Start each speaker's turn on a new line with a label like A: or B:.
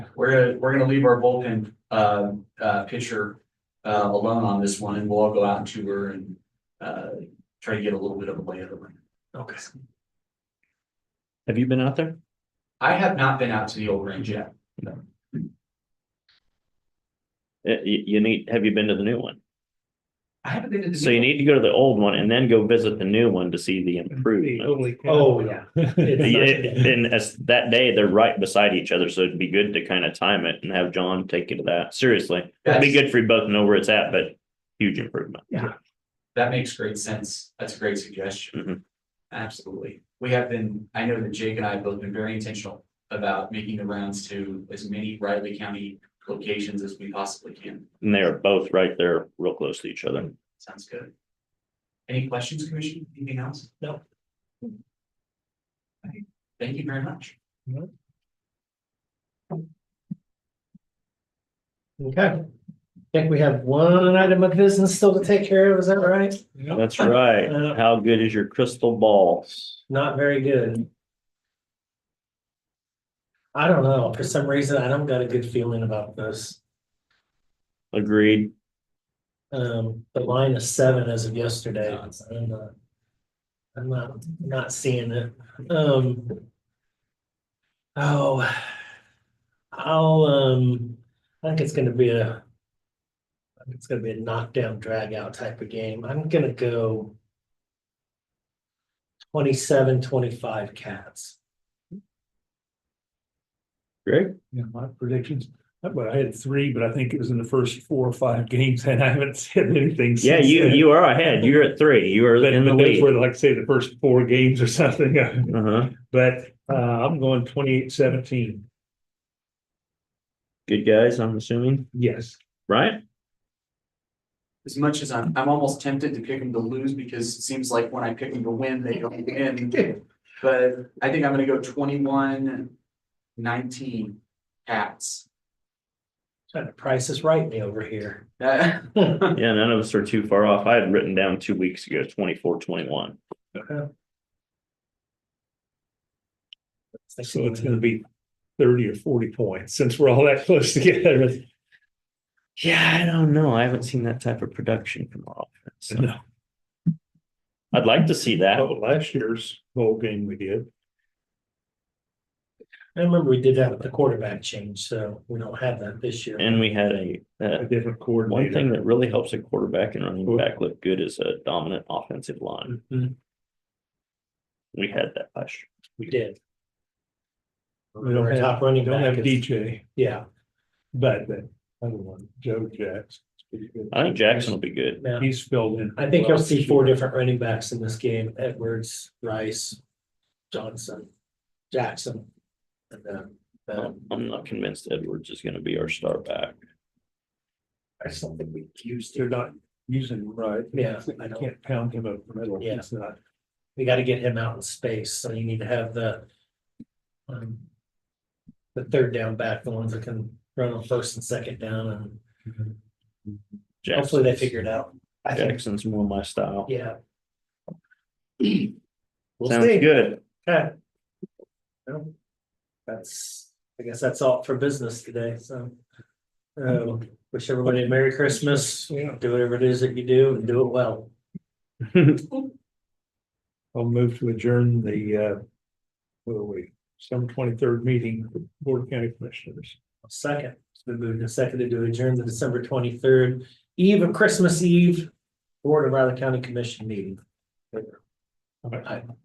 A: we're, we're gonna leave our bullpen, uh, uh, pitcher, uh, alone on this one and we'll all go out and tour and, uh, try to get a little bit of a lay of the land.
B: Okay. Have you been out there?
A: I have not been out to the old range yet.
B: Uh, You, you need, have you been to the new one?
A: I haven't been to the.
B: So you need to go to the old one and then go visit the new one to see the improvement.
C: Oh, yeah.
B: Yeah, And as that day, they're right beside each other, so it'd be good to kind of time it and have John take you to that. Seriously, it'd be
A: That's-
B: good for you both to know where it's at, but huge improvement.
A: That makes great sense. That's a great suggestion.
B: Mhm.
A: Absolutely. We have been, I know that Jake and I have both been very intentional about making the rounds to as many Riley County locations as we possibly can.
B: And they are both right there, real close to each other.
A: Sounds good. Any questions, Commissioner? Anything else?
C: No.
A: Okay. Thank you very much.
C: Okay. I think we have one item of business still to take care of, is that right?
B: That's right.
C: Uh,
B: How good is your crystal ball?
C: Not very good. I don't know, for some reason, I don't got a good feeling about this.
B: Agreed.
C: Um, the line is seven as of yesterday.
A: No, it's-
C: I'm not- I'm not, not seeing it. Um. Oh. I'll, um, I think it's gonna be a. I think it's gonna be a knockdown, drag out type of game. I'm gonna go. 27, 25 cats.
B: Greg?
D: Yeah, my predictions, I- but I had three, but I think it was in the first four or five games and I haven't said anything.
B: Yeah,
D: since
B: you,
D: then.
B: you are ahead. You're at three. You are
D: But
B: in the
D: but those
B: lead.
D: were like, say, the first four games or something,
B: Uh-huh.
D: but uh, I'm going twenty-eight seventeen,
B: Good guys, I'm assuming,
D: yes.
B: right?
A: As much as I'm, I'm almost tempted to pick them to lose because it seems like when I pick them to win, they don't win. But I think I'm gonna go twenty-one nineteen cats.
C: Trying to price is right me over here.
A: Uh,
B: Yeah, none of us are too far off. I had written down two weeks ago, twenty-four, twenty-one.
D: So it's gonna be thirty or forty points since we're all that close together.
B: Yeah, I don't know. I haven't seen that type of production from our offense. so.
D: No,
B: I'd like to see that.
D: oh, last year's bowl game we did,
C: I remember we did that with the quarterback change, so we don't have that this year.
B: And we had a,
D: a
B: uh,
D: different coordinator.
B: one thing that really helps a quarterback and running back look good is a dominant offensive line.
C: Mhm,
B: We had that last year.
C: We did.
D: We don't
C: Our
D: have,
C: top running
D: we don't have
C: back is,
D: DJ,
C: yeah,
D: but the other one, Joe Jackson.
B: I think Jackson will be good.
C: now,
D: He's filled in.
C: I think you'll
D: well
C: see
D: this
C: four
D: year.
C: different running backs in this game, Edwards, Rice, Johnson, Jackson. And then, um,
B: I'm not convinced Edwards is gonna be our star back.
C: I don't think we used
D: They're
C: to,
D: not using him right.
C: Yeah,
D: You
C: I know.
D: can't pound him up the middle.
C: Yeah.
D: It's not.
C: we gotta get him out in space, so you need to have the. um, The third down back, the ones that can run on first and second down, and hopefully they
B: Jackson's-
C: figure it out. I think,
B: Jackson's more my style.
C: yeah. We'll
B: Sounds
C: see.
B: good.
C: Okay. Well, That's, I guess that's all for business today, so. Um, wish everybody a Merry Christmas,
D: Yeah,
C: do whatever it is that you do and do it well.
D: I'll move to adjourn the, uh, what are we, some twenty-third meeting, of Board of County Commissioners.
C: Second, it's been moved and seconded to adjourn the December twenty-third eve of Christmas Eve, Board of Riley County Commission meeting.
D: All right.
C: Aye.